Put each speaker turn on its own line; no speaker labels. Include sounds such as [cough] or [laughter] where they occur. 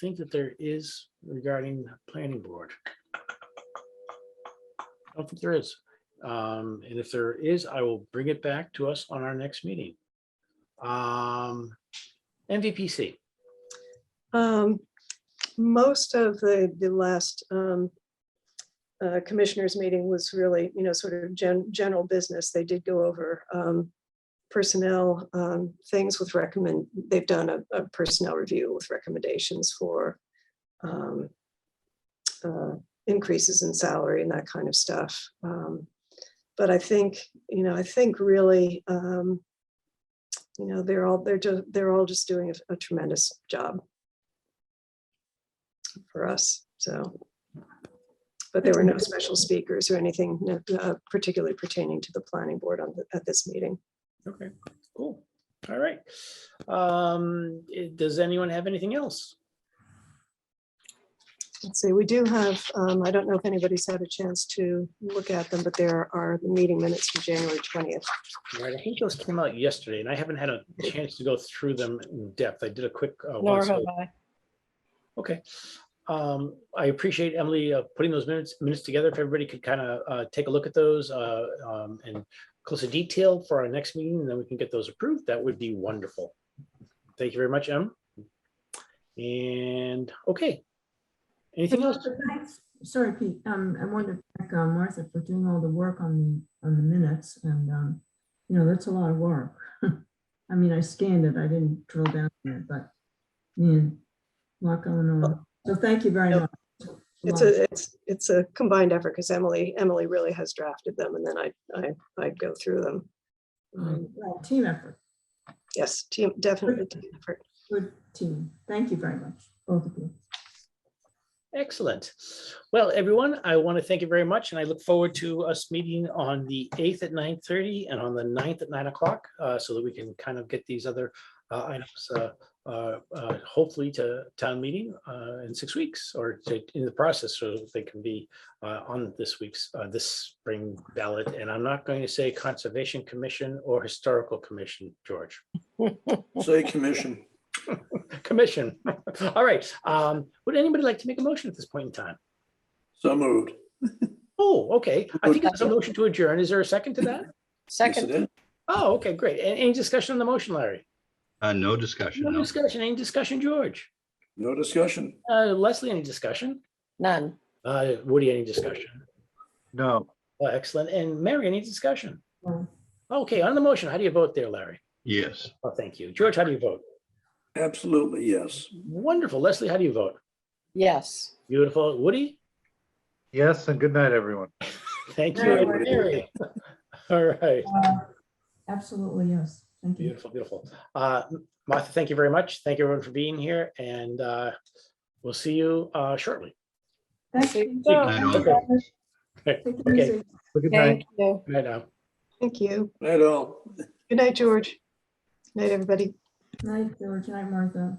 think that there is regarding the planning board. I don't think there is. Um, and if there is, I will bring it back to us on our next meeting. Um, MVPC,
Um, most of the, the last, um, uh, commissioners meeting was really, you know, sort of gen, general business. They did go over, um, personnel, um, things with recommend, they've done a, a personnel review with recommendations for, um, uh, increases in salary and that kind of stuff. Um, but I think, you know, I think really, um, you know, they're all, they're just, they're all just doing a- a tremendous job for us, so. But there were no special speakers or anything uh, particularly pertaining to the planning board on, the- at this meeting.
okay, cool, all right. Um, eh, does anyone have anything else?
Let's see, we do have, um, I don't know if anybody's had a chance to look at them, but there are the meeting minutes from January twentieth.
Right, I think those came out yesterday and I haven't had a chance to go through them in depth. I did a quick. uh,
Nor
once
have
over.
I.
Okay. Um, I appreciate Emily uh, putting those minutes, minutes together. If everybody could kind of uh, take a look at those uh, um, and closer detail for our next meeting, then we can get those approved. That would be wonderful. Thank you very much, Em. And, okay. Anything else?
Sorry, Pete, um, I wanted to thank uh, Martha for doing all the work on the, on the minutes and, um, you know, that's a lot of work. [laughs] I mean, I scanned it, I didn't drill down on it, but, man, lot going on. So thank you very
Yep.
much.
It's
Lot.
a, it's, it's a combined effort because Emily, Emily really has drafted them and then I, I, I go through them. Um,
Um, well, Team effort,
Yes, team, definitely team effort.
good team. Thank you very much, both of you.
Excellent. Well, everyone, I want to thank you very much, and I look forward to us meeting on the eighth at nine thirty and on the 9th at nine o'clock, uh, so that we can kind of get these other uh, items, uh, uh, uh, hopefully to town meeting uh, in six weeks or to- in the process, so that they can be uh, on this week's, uh, this spring ballot. And I'm not going to say Conservation Commission or Historical Commission, George.
Say commission.
Commission. [laughs] All right. Um, Would anybody like to make a motion at this point in time?
So moved.
Oh, okay. I think it's a motion to adjourn. Is there a second to that?
Yes, it
Second,
is.
Oh, okay, great. A- Any discussion on the motion, Larry?
Uh, no discussion,
No
no.
discussion. Any discussion, George?
No discussion.
Uh, Leslie, any discussion?
none.
Uh, Woody, any discussion?
No,
Well, Excellent. And Mary, any discussion?
Well,
Okay, on the motion, how do you vote there, Larry?
Yes,
Oh, thank you. George, how do you vote?
Absolutely, yes.
Wonderful. Leslie, how do you vote?
Yes.
Beautiful. Woody?
yes, and good night, everyone.
[laughs] Thank you.
Very
And
well.
Mary? [laughs] All right.
uh, Absolutely, yes. Thank you.
Beautiful, beautiful. Uh, Martha, thank you very much. Thank you everyone for being here and uh, we'll see you uh, shortly.
Thank you.
Good
night, all.
Take it
Okay.
easy.
Have a Good night.
Thank you.
Right now.
Thank you.
Night all.
Good night, George. Good Night, everybody.
Night, George, night, Martha.